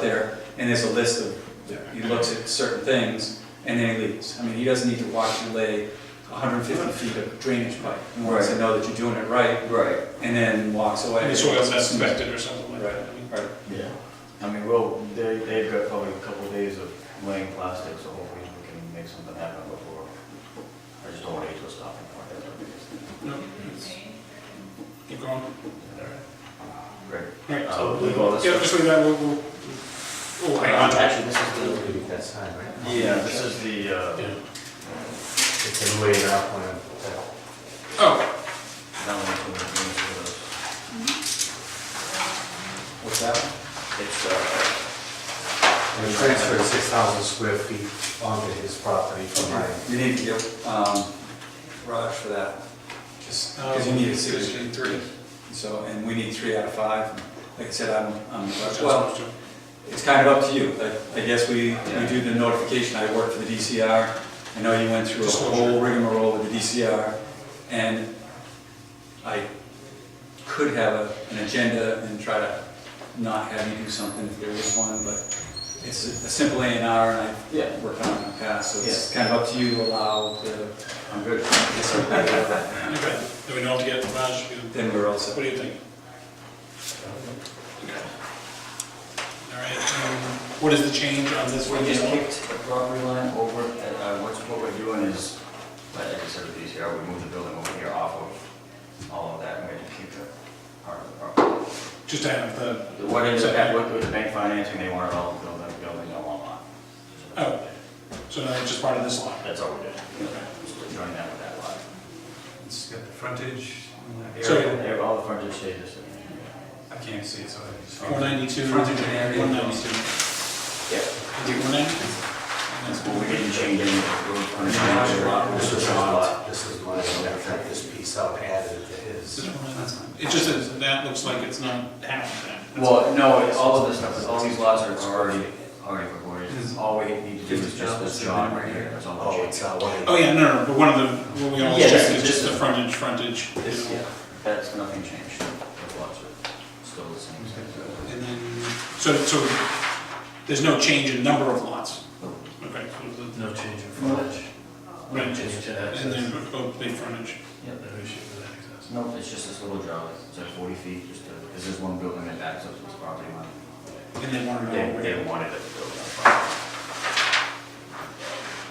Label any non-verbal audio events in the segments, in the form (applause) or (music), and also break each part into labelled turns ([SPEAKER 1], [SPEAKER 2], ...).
[SPEAKER 1] there, and there's a list of, he looks at certain things, and then he leaves. I mean, he doesn't need to watch you lay 150 feet of drainage pipe. He wants to know that you're doing it right,
[SPEAKER 2] Right,
[SPEAKER 1] and then walks away.
[SPEAKER 3] And the soil's not inspected or something like
[SPEAKER 1] Right,
[SPEAKER 3] that. I mean,
[SPEAKER 1] right.
[SPEAKER 4] Yeah, I mean, well, they, they've got probably a couple of days of laying plastic, so hopefully we can make something happen before. I just don't want to get to a stopping point, that's what it
[SPEAKER 3] No, it's- Keep going.
[SPEAKER 4] is. Great.
[SPEAKER 3] Right,
[SPEAKER 4] Uh,
[SPEAKER 3] so,
[SPEAKER 4] we'll leave all this
[SPEAKER 3] yeah,
[SPEAKER 4] stuff.
[SPEAKER 3] just leave that, we'll, we'll, we'll hang on to that.
[SPEAKER 5] Actually, this is the, that's fine, right?
[SPEAKER 4] Yeah, this is the, uh,
[SPEAKER 5] It's in way out when,
[SPEAKER 3] Oh,
[SPEAKER 4] that one from the Minnesota.
[SPEAKER 1] What's that?
[SPEAKER 4] It's, uh,
[SPEAKER 5] we transferred six thousand square feet onto his property from mine.
[SPEAKER 1] You need to get um, Raj for that, just, because you
[SPEAKER 3] um,
[SPEAKER 1] need a
[SPEAKER 3] it's
[SPEAKER 1] signature.
[SPEAKER 3] in three.
[SPEAKER 1] So, and we need three out of five. Like I said, I'm, I'm-
[SPEAKER 3] Just-
[SPEAKER 1] well,
[SPEAKER 3] just-
[SPEAKER 1] it's kind of up to you. Like, I guess we, we do the notification, I work for the DCR. I know you went through a
[SPEAKER 3] Disclosure.
[SPEAKER 1] whole rigmarole with the DCR, and I could have a- an agenda and try to not have you do something if there is one, but it's a a simple A and R, and
[SPEAKER 4] Yeah.
[SPEAKER 1] I've worked on it in the past, so it's kind of up to you to allow the,
[SPEAKER 4] I'm good.
[SPEAKER 3] (laughs) Okay, then we know what to get, Raj, you-
[SPEAKER 1] then we're all
[SPEAKER 3] what
[SPEAKER 1] set.
[SPEAKER 3] do you think? Okay. All right, um, what is the change on this
[SPEAKER 4] We
[SPEAKER 3] one?
[SPEAKER 4] just kicked the property line over, and, uh, what's, what we're doing is, like I said, with these here, we moved the building over here off of all of that, and we had to keep the part of the property.
[SPEAKER 3] Just to have the,
[SPEAKER 4] What is, what, with the bank financing, they want it all built up, building on one lot.
[SPEAKER 3] oh, so now it's just part of this lot?
[SPEAKER 4] That's all we did. Just Join that with that lot.
[SPEAKER 1] It's got the frontage,
[SPEAKER 3] So-
[SPEAKER 4] They have all the frontage stages.
[SPEAKER 1] I can't see it, so I just.
[SPEAKER 3] Four ninety-two, one
[SPEAKER 1] Frontage and area.
[SPEAKER 3] ninety-two.
[SPEAKER 4] Yeah.
[SPEAKER 3] One ninety? That's
[SPEAKER 4] Well, we didn't change any of the road frontage.
[SPEAKER 5] This is
[SPEAKER 4] Just a
[SPEAKER 5] not,
[SPEAKER 4] lot.
[SPEAKER 5] this is mine, I'm gonna cut this piece out, and add it to
[SPEAKER 3] Is
[SPEAKER 5] his.
[SPEAKER 3] it one ninety? It just is, that looks like it's not half of that. That's-
[SPEAKER 4] Well, no, it's all of this stuff, all these lots are already, already recorded. All we need to do is just this John right here, that's all
[SPEAKER 5] Oh,
[SPEAKER 4] we're
[SPEAKER 5] it's
[SPEAKER 4] changing.
[SPEAKER 5] not one of
[SPEAKER 3] Oh, yeah, no, no, but one of the, what we always
[SPEAKER 4] Yeah,
[SPEAKER 3] check
[SPEAKER 4] this-
[SPEAKER 3] is just
[SPEAKER 4] this
[SPEAKER 3] the
[SPEAKER 4] is-
[SPEAKER 3] frontage, frontage.
[SPEAKER 4] This, yeah, that's, nothing changed. The lots are still the same. size.
[SPEAKER 3] And then, so, so there's no change in number of lots? Okay, so the,
[SPEAKER 6] No change in frontage.
[SPEAKER 3] Right.
[SPEAKER 6] No change in access.
[SPEAKER 3] and then both big frontage.
[SPEAKER 4] Yep.
[SPEAKER 6] No issue with access.
[SPEAKER 4] No, it's just this little draw, it's like forty feet, just to, because there's one building that backs up to this property line.
[SPEAKER 3] And they wanted it all
[SPEAKER 4] They, they
[SPEAKER 3] where?
[SPEAKER 4] wanted it to build up.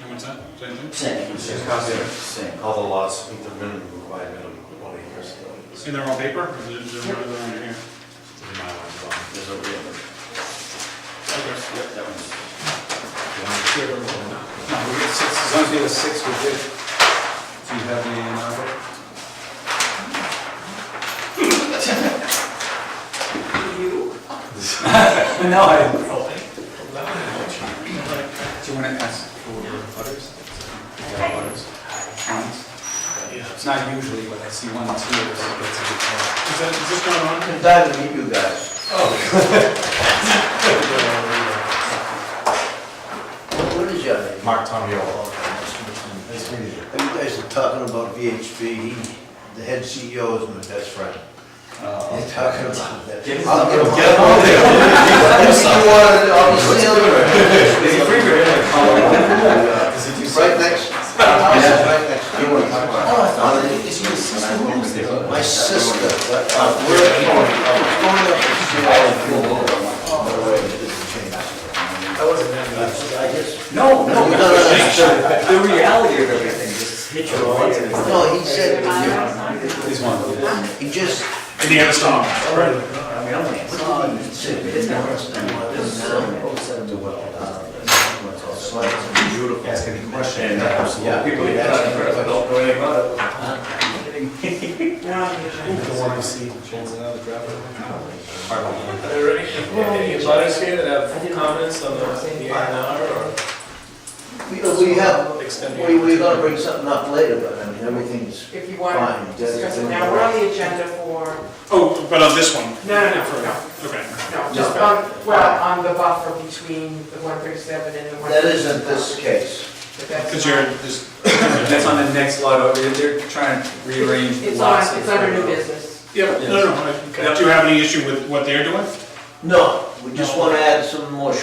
[SPEAKER 3] And what's that? Same thing?
[SPEAKER 4] Same,
[SPEAKER 5] Same concept.
[SPEAKER 4] Same.
[SPEAKER 5] All the lots meet the minimum required minimum of one acre. so it's-
[SPEAKER 3] And they're all paper? Or Is there, is there one other one here?
[SPEAKER 5] it's in my life, well,
[SPEAKER 4] There's a real.
[SPEAKER 3] Okay.
[SPEAKER 4] Yep, that one's.
[SPEAKER 1] No, we got six, as long as you have six, we're good. Do you have the A and R book? You? No, I didn't. Do you want to ask for butters? Yeah, butters. Counts? It's not usually what I see one, two, or so that's a good call.
[SPEAKER 3] Is that, is this going on?
[SPEAKER 4] I'm glad to meet you guys.
[SPEAKER 7] What (laughs) what is your name?
[SPEAKER 5] Mark Tomiolo.
[SPEAKER 7] Nice meeting you. You guys are talking about VHB, He- the head CEO is my best friend. Uh, You're talking about that.
[SPEAKER 1] Get his
[SPEAKER 7] I'll get him, get him out there. You want it on the seal?
[SPEAKER 1] Is he free or is
[SPEAKER 7] Uh,
[SPEAKER 1] he? Oh, Does he do
[SPEAKER 7] Right next, our house is right next. to yours. Uh, My sister, but, uh, we're, we're going up to see By the way, it didn't change. I just
[SPEAKER 1] No, (laughs) no,
[SPEAKER 7] No, no, no, no.
[SPEAKER 1] the reality of everything just hit
[SPEAKER 7] Oh,
[SPEAKER 1] you once.
[SPEAKER 7] No, he said,
[SPEAKER 1] He's one of those.
[SPEAKER 7] he just,
[SPEAKER 3] Did he have a song?
[SPEAKER 5] Ask any question.
[SPEAKER 4] Yeah, people are asking for it, I don't know anything about it.
[SPEAKER 5] Don't want to see. Change another driveway.
[SPEAKER 6] Are there any, any butters here that have comments on the the A and
[SPEAKER 7] we uh, we have,
[SPEAKER 6] R? Extending.
[SPEAKER 7] we, we're gonna bring something up later, but I mean, everything's,
[SPEAKER 8] if you want to discuss it now, we're on the agenda for,
[SPEAKER 3] Oh, but on this one?
[SPEAKER 8] no, no, no, no,
[SPEAKER 3] Okay.
[SPEAKER 8] no, just on, well, on the buffer between the one thirty-seven and the one.
[SPEAKER 7] that isn't this case.
[SPEAKER 3] Because you're, this,
[SPEAKER 1] That's on the next lot over there, they're trying to rearrange
[SPEAKER 8] It's
[SPEAKER 1] lots.
[SPEAKER 8] on, it's under new business.
[SPEAKER 3] yeah, no, no, no, do you have any issue with what they're doing?
[SPEAKER 7] No, we just wanna add some more